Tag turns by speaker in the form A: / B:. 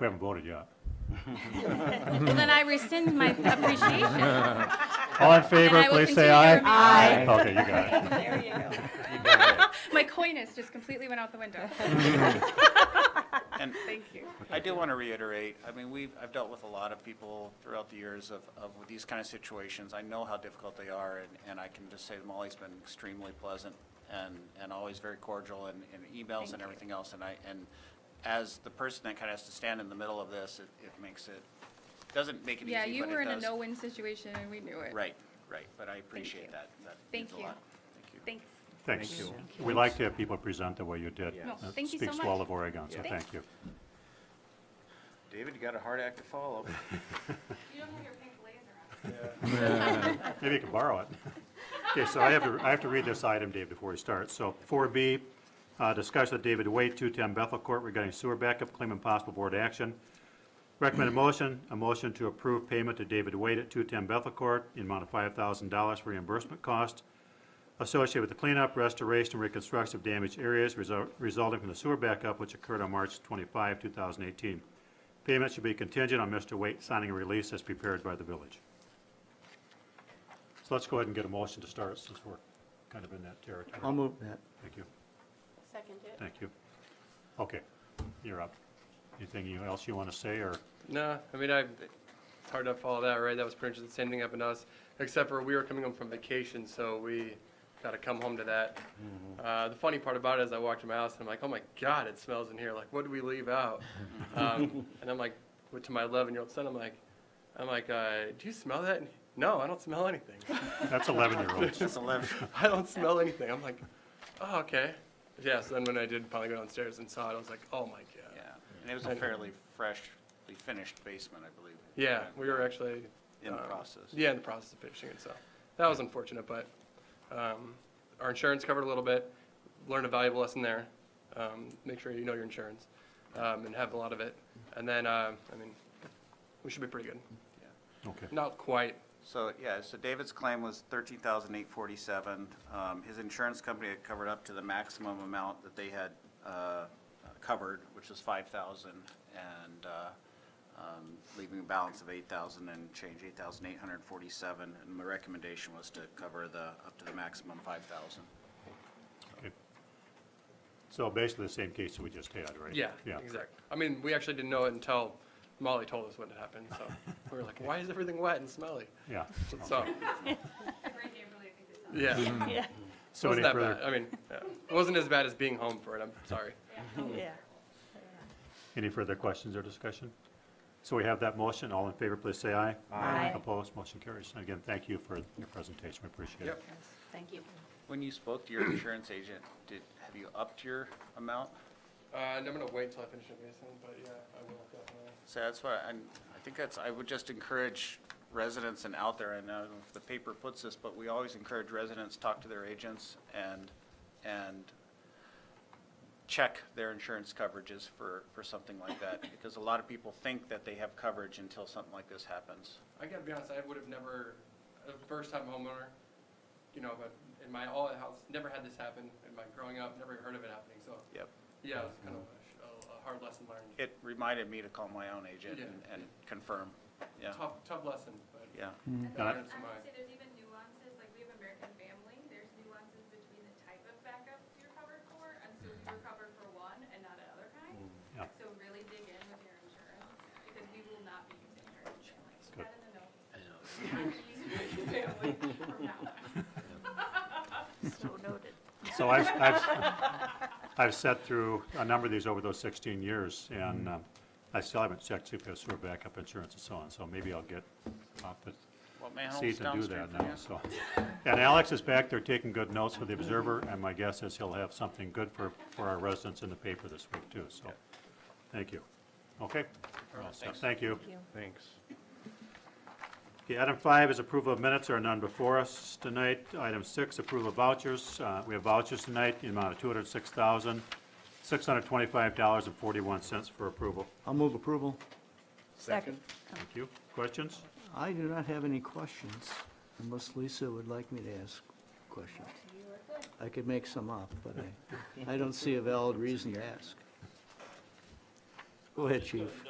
A: We haven't voted yet.
B: Well, then I rescind my appreciation.
A: All in favor,
B: I will
A: please say
B: continue
A: aye.
B: your
A: Aye. Okay, you got it.
C: There you go.
B: My coyness just completely went out the window.
D: And
B: Thank you.
D: I do want to reiterate, I mean, we've, I've dealt with a lot of people throughout the years of, of these kind of situations. I know how difficult they are, and, and I can just say that Molly's been extremely pleasant and, and always very cordial in, in emails and everything else. And I, and as the person that kind of has to stand in the middle of this, it, it makes it, doesn't make it easy,
B: Yeah,
D: but it does.
B: you were in a no-win situation and we knew it.
D: Right, right, but I appreciate
B: you.
D: that. That
B: Thank
D: means a
B: you.
D: lot. Thank you.
B: Thanks.
A: Thanks. We like to have people present the way you did.
B: No,
A: That
B: thank you so
A: Speaks
B: much.
A: well of Oregon, so
B: Yeah.
A: thank you.
D: David, you got a hard act to follow.
B: You don't have your pink blazer on.
A: Maybe you can borrow it. Okay, so I have to, I have to read this item, Dave, before we start. So 4B, uh, discussion with David Wade, 210 Bethel Court regarding sewer backup claim and possible board action. Recommended motion, a motion to approve payment to David Wade at 210 Bethel Court in amount of $5,000 for reimbursement cost associated with the cleanup, restoration, and reconstruction of damaged areas result- resulting from the sewer backup which occurred on March 25, 2018. Payment should be contingent on Mr. Wade signing a release as prepared by the village. So let's go ahead and get a motion to start since we're kind of in that territory.
E: I'll move that.
A: Thank you,
B: Second it.
A: thank you. Okay, you're up. Anything you- else you want to say, or,
F: No, I mean, I, it's hard to follow that, right? That was pretty much the same thing happened to us, except for we were coming home from vacation, so we got to come home to that. Uh, the funny part about it is I walked in my house and I'm like, oh my God, it smells in here. Like, what did we leave out? um, and I'm like, went to my 11 year old son, I'm like, I'm like, uh, do you smell that? And he, no, I don't smell anything.
A: that's 11-year-olds.
D: It's 11.
F: I don't smell anything. I'm like, oh, okay. Yeah, so then when I did finally go downstairs and saw it, I was like, oh my God.
D: Yeah, and it was a fairly freshly finished basement, I believe.
F: Yeah, we were actually.
D: In the
F: um,
D: process.
F: Yeah, in the process of finishing it, so that was unfortunate, but um, our insurance covered a little bit. Learned a valuable lesson there. Um, Make sure you know your insurance um, and have a lot of it. And then, uh, I mean, we should be pretty good.
D: Yeah.
A: Okay,
F: Not quite,
D: So, yeah, so David's claim was thirteen thousand eight forty-seven. Um, his insurance company had covered up to the maximum amount that they had, uh, covered, which was five thousand, and, uh, um, leaving a balance of eight thousand and change, eight thousand eight hundred forty-seven. And my recommendation was to cover the, up to the maximum five thousand.
A: okay. So basically the same case that we just had, right?
F: yeah,
A: Yeah,
F: exactly. I mean, we actually didn't know it until Molly told us when it happened, so we were like, why is everything wet and smelly?
A: yeah.
F: So, yeah.
A: So any
F: wasn't that bad.
A: further,
F: I mean, yeah. it wasn't as bad as being home for it. I'm sorry.
C: Yeah.
A: any further questions or discussion? So we have that motion, all in favor, please say aye.
C: Aye.
A: Opposed, motion carries. And again, thank you for your presentation, we appreciate it.
F: Yep.
C: Thank you.
D: When you spoke to your insurance agent, did, have you upped your amount?
F: Uh, and I'm gonna wait till I finish it, Mason. But yeah, I will definitely.
D: So that's why, I'm, I think that's, I would just encourage residents and out there, I know if the paper puts this, but we always encourage residents, talk to their agents and, and check their insurance coverages for, for something like that, because a lot of people think that they have coverage until something like this happens.
F: I gotta be honest. I would have never, a first-time homeowner, you know, but in my all house, never had this happen in my growing up. Never heard of it happening. So
D: Yep.
F: yeah, it was kind of a, a hard lesson learned.
D: It reminded me to call my own agent and, and confirm, yeah,
F: Tough, tough lesson, but
D: yeah.
A: Yeah.
F: I learned
G: I
F: so
G: would
F: much.
G: say there's even nuances, like we have American Family, there's nuances between the type of backup you're covered for, and so we were covered for one and not another kind.
A: Yeah.
G: So really dig in with your insurance, because we will not be using American Family, Put that in the notes. I know. American Family from now on.
C: So noted.
A: So I've, I've, I've sat through a number of these over those 16 years,
F: Mm-hmm.
A: and um, I still haven't checked if it's sewer backup insurance and so on, so maybe I'll get off the
D: Well, my home's
A: seat and do
D: downstream
A: that
D: from
A: now,
D: you.
A: so. And Alex is back there taking good notes for the Observer, and my guess is he'll have something good for, for our residents in the paper this week, too, so, thank you. Okay? We're all set. Thank you.
E: Thanks.
A: Okay, item five is approval of minutes, there are none before us tonight. Item six, approval of vouchers. Uh, We have vouchers tonight in amount of $206,625.41 for approval.
E: I'll move approval.
C: Second.
A: Thank you. Questions?
E: I do not have any questions unless Lisa would like me to ask questions. I could make some up, but I, I don't see a valid reason to ask. Go ahead, chief.